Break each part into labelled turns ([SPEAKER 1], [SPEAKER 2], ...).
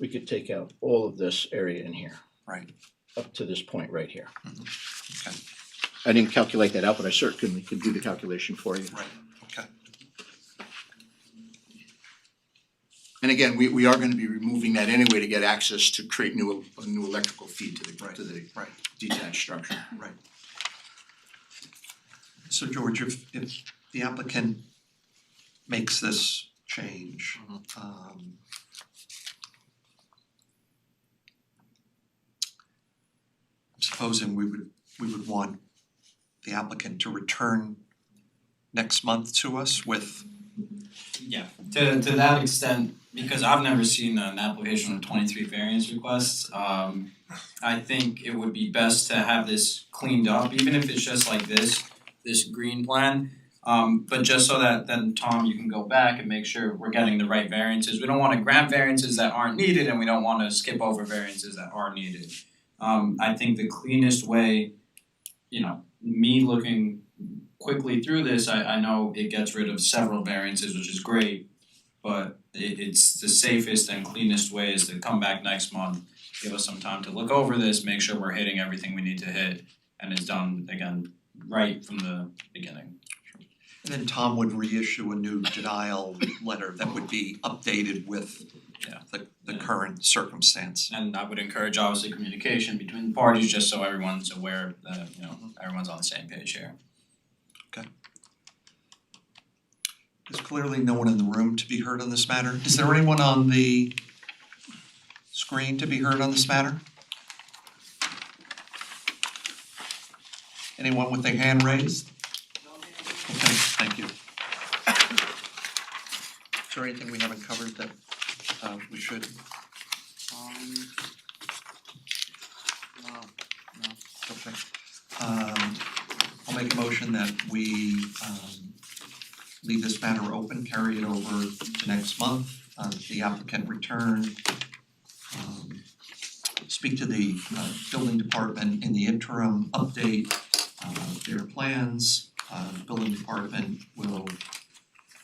[SPEAKER 1] we could take out all of this area in here,
[SPEAKER 2] right,
[SPEAKER 1] up to this point right here. Mm-hmm.
[SPEAKER 2] okay,
[SPEAKER 1] I didn't calculate that out, but I certainly could do the calculation for you.
[SPEAKER 2] right, okay.
[SPEAKER 3] And again, we we are gonna be removing that anyway to get access to create new a new electrical feed to the
[SPEAKER 2] Right.
[SPEAKER 3] to the
[SPEAKER 2] Right,
[SPEAKER 3] detached structure.
[SPEAKER 2] right. So George, if if the applicant makes this change, um I'm supposing we would we would want the applicant to return next month to us with,
[SPEAKER 4] Yeah, to to that extent, because I've never seen an application with twenty three variance requests, um I think it would be best to have this cleaned up, even if it's just like this, this green plan. Um but just so that then Tom, you can go back and make sure we're getting the right variances, we don't wanna grant variances that aren't needed and we don't wanna skip over variances that are needed. Um I think the cleanest way, you know, me looking quickly through this, I I know it gets rid of several variances, which is great. But it it's the safest and cleanest way is to come back next month, give us some time to look over this, make sure we're hitting everything we need to hit. And it's done again right from the beginning.
[SPEAKER 2] and then Tom would reissue a new denial letter that would be updated with
[SPEAKER 4] Yeah.
[SPEAKER 2] the the
[SPEAKER 4] Yeah.
[SPEAKER 2] current circumstance.
[SPEAKER 4] And I would encourage obviously communication between the parties, just so everyone's aware that, you know, everyone's on the same page here.
[SPEAKER 2] There's clearly no one in the room to be heard on this matter. Is there anyone on the screen to be heard on this matter? Anyone with their hand raised? Okay, thank you. Is there anything we haven't covered that uh we should?
[SPEAKER 4] Um
[SPEAKER 2] Okay. Um I'll make a motion that we um leave this matter open, carry it over to next month, uh the applicant return. Um speak to the uh building department in the interim, update uh their plans, uh building department will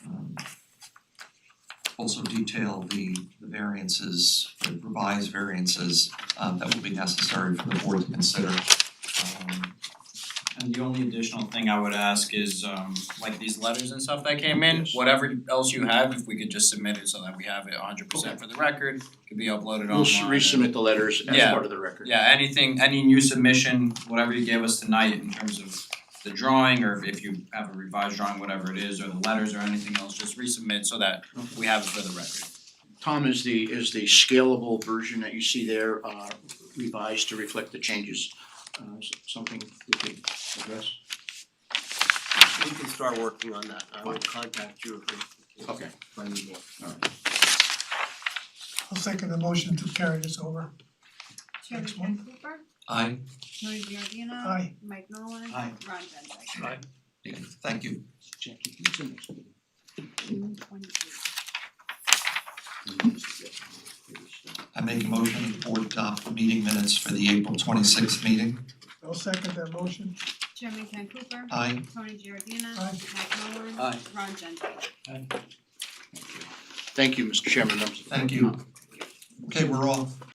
[SPEAKER 2] um also detail the the variances, the revised variances um that will be necessary for the board to consider. Um
[SPEAKER 4] And the only additional thing I would ask is um like these letters and stuff that came in,
[SPEAKER 1] Yes.
[SPEAKER 4] whatever else you have, if we could just submit it so that we have it hundred percent for the record, could be uploaded online.
[SPEAKER 1] We'll s- resubmit the letters as
[SPEAKER 4] Yeah.
[SPEAKER 1] part of the record.
[SPEAKER 4] Yeah, anything, any new submission, whatever you gave us tonight in terms of the drawing or if you have a revised drawing, whatever it is, or the letters or anything else, just resubmit so that we have it for the record.
[SPEAKER 1] Tom, is the, is the scalable version that you see there uh, revised to reflect the changes, uh, s- something we could address?
[SPEAKER 5] We can start working on that, I will contact you if we
[SPEAKER 1] Okay.
[SPEAKER 5] find more.
[SPEAKER 6] I'll second the motion to carry this over.
[SPEAKER 7] Chairman
[SPEAKER 6] Next one.
[SPEAKER 7] Ken Cooper,
[SPEAKER 2] I
[SPEAKER 7] Louis Giardino.
[SPEAKER 6] Aye.
[SPEAKER 7] Mike Nolan.
[SPEAKER 2] Aye.
[SPEAKER 7] Ron Genzeg.
[SPEAKER 2] thank you.
[SPEAKER 1] Jackie, who's in this?
[SPEAKER 7] June twenty-eighth.
[SPEAKER 1] Mm-hmm.
[SPEAKER 2] I make a motion that the board adopt the meeting minutes for the April twenty-sixth meeting.
[SPEAKER 6] I'll second that motion.
[SPEAKER 7] Chairman Ken Cooper.
[SPEAKER 2] Aye.
[SPEAKER 7] Tony Giardina.
[SPEAKER 6] Aye.
[SPEAKER 7] Mike Nolan.
[SPEAKER 4] Aye.
[SPEAKER 7] Ron Genzeg.
[SPEAKER 1] Thank you, Mr. Chairman, members of the
[SPEAKER 2] Thank you. Okay, we're off.